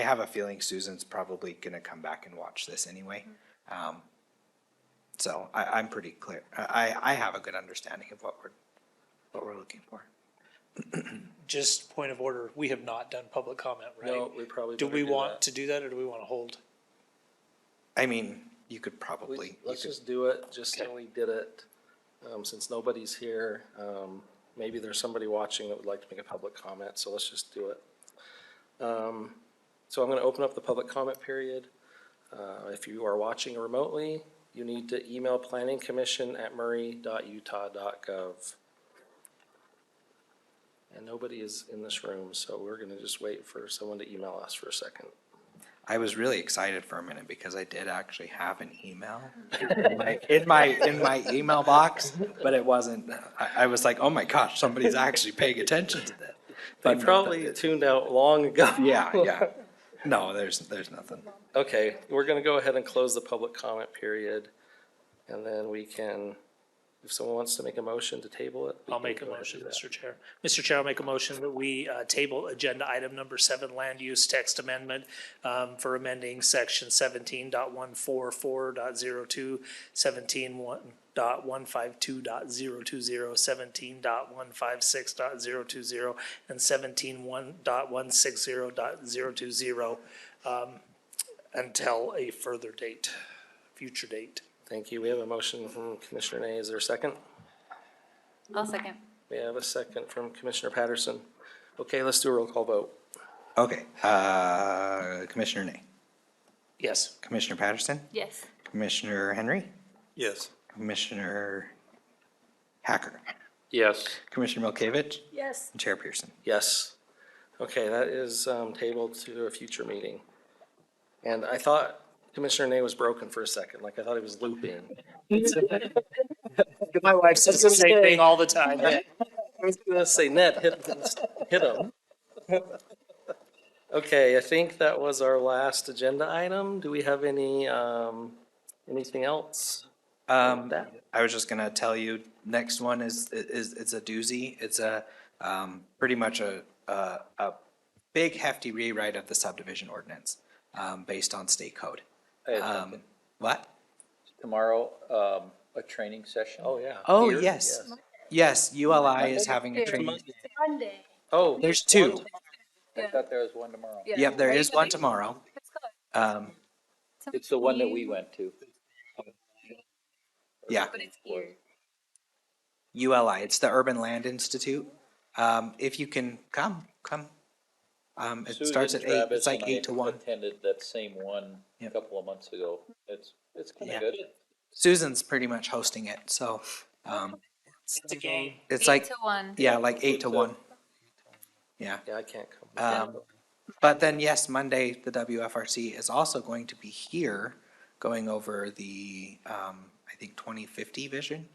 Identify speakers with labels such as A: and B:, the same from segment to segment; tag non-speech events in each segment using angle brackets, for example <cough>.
A: have a feeling Susan's probably gonna come back and watch this anyway. Um, So I, I'm pretty clear, I, I have a good understanding of what we're, what we're looking for.
B: Just point of order, we have not done public comment, right?
C: No, we probably
B: Do
C: better
B: we
C: do
B: want
C: that.
B: to do that or do we want to hold?
A: I mean, you could
C: We-
A: probably, you
C: Let's
A: could,
C: just do it, just so
B: Okay.
C: we did it, um, since nobody's here. Um, maybe there's somebody watching that would like to make a public comment, so let's just do it. Um, so I'm gonna open up the public comment period. Uh, if you are watching remotely, you need to email planningcommission@murray.utah.gov. And nobody is in this room, so we're gonna just wait for someone to email us for a second.
A: I was really excited for a minute because I did actually have an email
C: Mm-hmm.
A: in my- in my, in my email box, but it wasn't, I, I was like, oh my gosh, somebody's actually paying attention to that.
C: They
A: But no,
C: probably
A: that-
C: tuned out long ago.
A: Yeah, yeah. No, there's, there's nothing.
C: Okay, we're gonna go ahead and close the public comment period, and then we can, if someone wants to make a motion to table it. we
B: I'll
C: can
B: make a
C: go ahead and
B: motion,
C: do that.
B: Mr. Chair. Mr. Chair, I'll make a motion that we uh, table agenda item number seven, land use text amendment um, for amending section 17.144.02, 17.152.050, dot one five six dot zero two zero, and seventeen one dot one six zero dot zero two zero um, until a further date, future date.
C: Thank you. We have a motion from Commissioner Nay. Is there a second?
D: I'll second.
C: We have a second from Commissioner Patterson. Okay, let's do a roll call vote.
A: Okay, uh, Commissioner Nay,
B: Yes,
A: Commissioner Patterson,
D: Yes.
A: Commissioner Henry,
E: Yes.
A: Commissioner Hacker,
C: Yes.
A: Commissioner Milkovich,
D: Yes.
A: and Chair Pearson.
C: Yes. Okay, that is, um, tabled to a future meeting. And I thought Commissioner Nay was broken for a second, like I thought he was looping.
B: my wife says the same thing all the time.
C: I was gonna say, Ned, hit, hit him. <laughs> Okay, I think that was our last agenda item. Do we have any, um, anything else?
A: Um,
C: That-
A: I was just gonna tell you, next one is, is, it's a doozy. It's a, um, pretty much a, a, a big hefty rewrite of the subdivision ordinance, um, based on state code. Um, what?
E: Tomorrow, um, a training session?
C: Oh, yeah.
A: Oh,
E: Here?
A: yes, yes, ULI is having a training.
D: Monday.
C: Oh,
A: There's two.
E: I thought there was one tomorrow.
A: Yep, there is one tomorrow. Um,
E: It's the one that we went to.
A: yeah.
D: But it's here.
A: ULI, it's the Urban Land Institute. Um, if you can come, come. Um, it
E: Susan
A: starts at eight,
E: Travis
A: it's like
E: and I
A: eight to one.
E: Attended that same one a
A: Yep.
E: couple of months ago. It's, it's kinda
A: Yeah.
E: good.
A: Susan's pretty much hosting it, so, um,
B: It's a game.
A: it's like,
D: to one.
A: yeah, like eight to one. Yeah,
C: yeah, I can't come.
A: um, but then yes, Monday, the WFRC is also going to be here going over the, um, I think twenty fifty vision.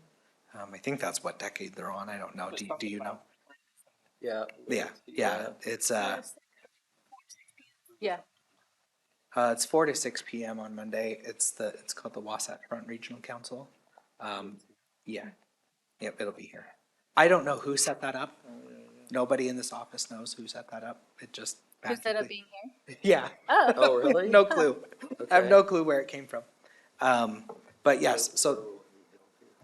A: Um, I think that's what decade they're on, I don't know, do, do you know? <laughs>
C: Yeah.
A: Yeah, yeah, it's, uh,
D: Yeah.
A: Uh, it's four to six PM on Monday. It's the, it's called the Wasatch Front Regional Council. Um, yeah, yep, it'll be here. I don't know who set that up. Nobody in this office knows who set that up. It just.
D: Who's that up
A: magically-
D: being here?
A: <laughs>
D: <laughs>
A: Yeah.
D: Oh,
C: Oh, really?
A: No
C: <laughs>
A: clue. I have
C: Okay.
A: no clue where it came from. Um, but yes, so,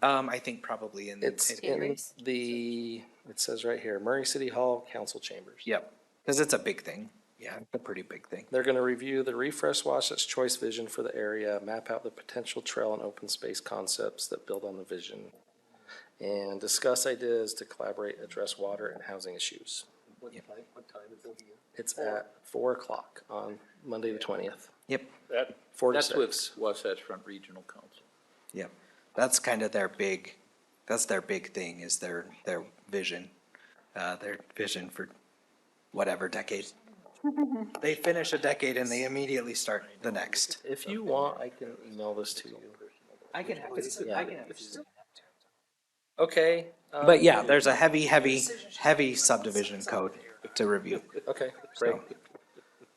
A: um, I think probably in.
C: It's
A: in-
C: in
D: Chambers.
C: the, it says right here, Murray City Hall Council Chambers.
A: Yep, because it's a big thing. Yeah, it's a pretty big thing.
C: They're gonna review the refresh Wasatch Choice vision for the area, map out the potential trail and open space concepts that build on the vision, and discuss ideas to collaborate, address water and housing issues. What
A: Yep.
C: time, what time is it It's at four o'clock on Monday the twentieth,
A: Yep,
E: That,
C: four to
E: that's
C: six.
E: with Wasatch Front Regional Council.
A: yep. That's kind of their big, that's their big thing is their, their vision. Uh, their vision for whatever decade. They finish a decade and they immediately start the next.
C: If you want, I can email this to you.
A: I can have it,
C: I
A: can have it.
C: Okay. um,
A: But yeah, there's a heavy, heavy, heavy subdivision code to review.
C: Okay, great.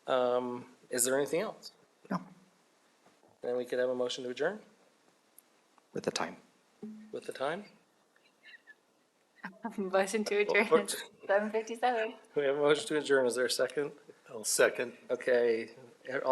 A: So,
C: Um, is there anything else?
A: no,
C: Then we could have a motion to adjourn
A: with the time.
C: with the time?
E: <laughs>
D: motion to adjourn. Seven fifty-seven.
C: We have a motion to adjourn. Is there a second? I'll second. Okay,